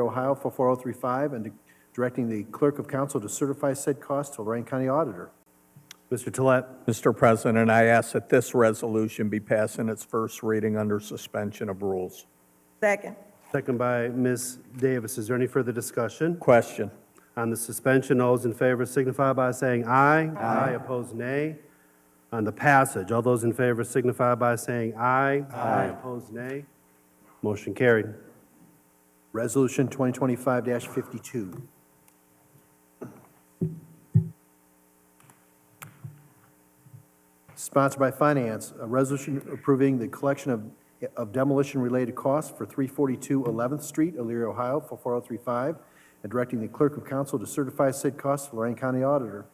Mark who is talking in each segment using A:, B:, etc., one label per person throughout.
A: Ohio for 4035, and directing the clerk of council to certify said cost to Lorraine County Auditor.
B: Mr. Tolet. Mr. President, I ask that this resolution be passed in its first reading under suspension of rules.
C: Second.
D: Second by Ms. Davis. Is there any further discussion?
B: Question.
D: On the suspension, all those in favor signify by saying aye. Aye. Opposed, nay. On the passage, all those in favor signify by saying aye. Aye. Opposed, nay. Motion carried.
A: Resolution 2025-52. Sponsored by Finance, a resolution approving the collection of of demolition-related costs for 342 11th Street, Elyria, Ohio for 4035, and directing the clerk of council to certify said cost to Lorraine County Auditor.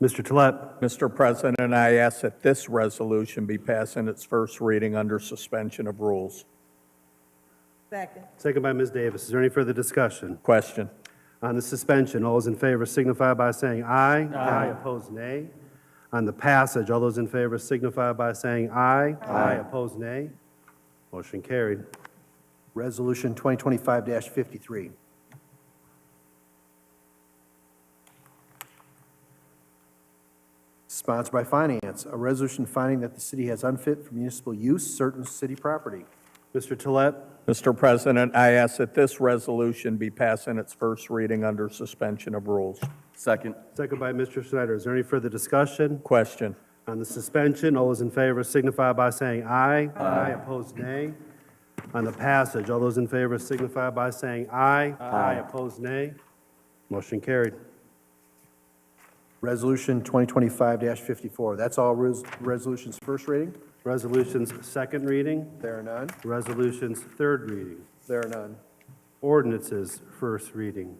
D: Mr. Tolet.
B: Mr. President, I ask that this resolution be passed in its first reading under suspension of rules.
C: Second.
D: Second by Ms. Davis. Is there any further discussion?
B: Question.
D: On the suspension, all those in favor signify by saying aye. Aye. Opposed, nay. On the passage, all those in favor signify by saying aye. Aye. Opposed, nay. Motion carried.
A: Resolution 2025-53. Sponsored by Finance, a resolution finding that the city has unfit for municipal use certain city property.
D: Mr. Tolet.
B: Mr. President, I ask that this resolution be passed in its first reading under suspension of rules.
E: Second.
D: Second by Mr. Schneider. Is there any further discussion
B: Question.
D: on the suspension? All those in favor signify by saying aye. Aye. Opposed, nay. On the passage, all those in favor signify by saying aye. Aye. Opposed, nay. Motion carried.
A: Resolution 2025-54. That's all res- resolutions first reading?
D: Resolutions, second reading.
A: There are none.
D: Resolutions, third reading.
A: There are none.
D: Ordinances, first reading.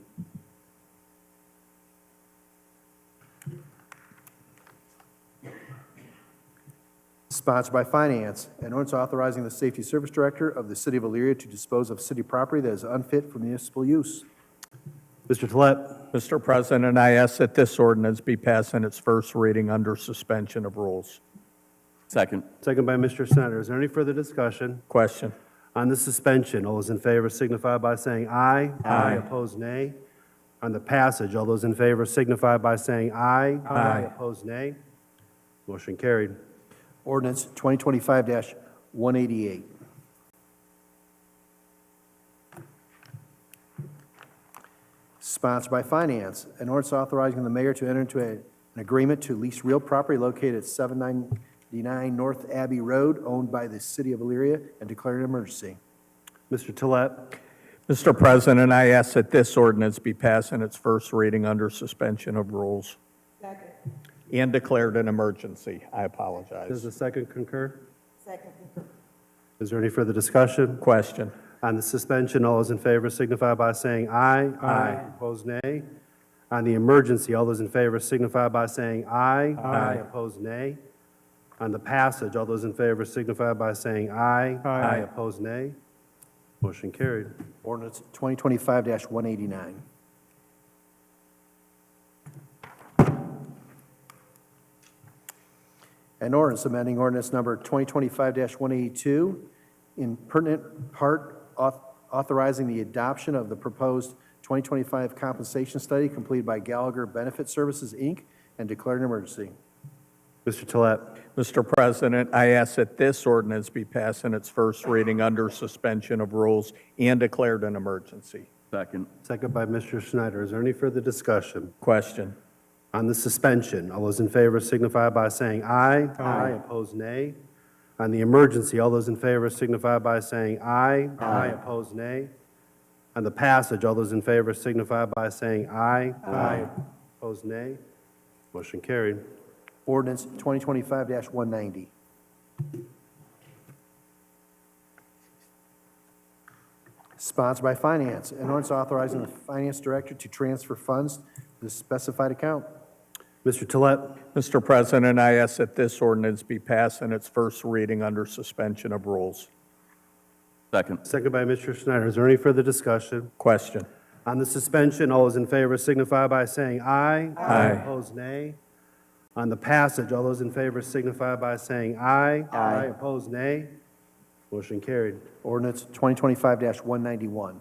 A: Sponsored by Finance, an ordinance authorizing the Safety Service Director of the City of Elyria to dispose of city property that is unfit for municipal use.
D: Mr. Tolet.
B: Mr. President, I ask that this ordinance be passed in its first reading under suspension of rules.
E: Second.
D: Second by Mr. Snyder. Is there any further discussion
B: Question.
D: on the suspension? All those in favor signify by saying aye. Aye. Opposed, nay. On the passage, all those in favor signify by saying aye.
B: Aye.
D: Opposed, nay. Motion carried.
A: Ordinance 2025-188. Sponsored by Finance, an ordinance authorizing the mayor to enter into a- an agreement to lease real property located at 799 North Abbey Road, owned by the city of Elyria, and declaring an emergency.
D: Mr. Tolet.
B: Mr. President, I ask that this ordinance be passed in its first reading under suspension of rules
C: Second.
B: and declared an emergency. I
D: Does
B: apologize.
D: the second concur?
C: Second.
D: Is there any further discussion?
B: Question.
D: On the suspension, all those in favor signify by saying aye. Aye. Opposed, nay. On the emergency, all those in favor signify by saying aye. Aye. Opposed, nay. On the passage, all those in favor signify by saying aye. Aye. Opposed, nay. Motion carried.
A: Ordinance 2025-189. An ordinance amending ordinance number 2025-182, in pertinent part auth- authorizing the adoption of the proposed 2025 compensation study completed by Gallagher Benefit Services, Inc., and declaring an emergency.
D: Mr. Tolet.
B: Mr. President, I ask that this ordinance be passed in its first reading under suspension of rules and declared an emergency.
E: Second.
D: Second by Mr. Schneider. Is there any further discussion?
B: Question.
D: On the suspension, all those in favor signify by saying aye. Aye. Opposed, nay. On the emergency, all those in favor signify by saying aye. Aye. Opposed, nay. On the passage, all those in favor signify by saying aye. Aye. Opposed, nay. Motion carried.
A: Ordinance 2025-190. Sponsored by Finance, an ordinance authorizing the Finance Director to transfer funds to the specified account.
D: Mr. Tolet.
B: Mr. President, I ask that this ordinance be passed in its first reading under suspension of rules.
E: Second.
D: Second by Mr. Schneider. Is there any further discussion?
B: Question.
D: On the suspension, all those in favor signify by saying aye.
B: Aye.
D: Opposed, nay. On the passage, all those in favor signify by saying aye. Aye. Opposed, nay. Motion carried.
A: Ordinance 2025-191.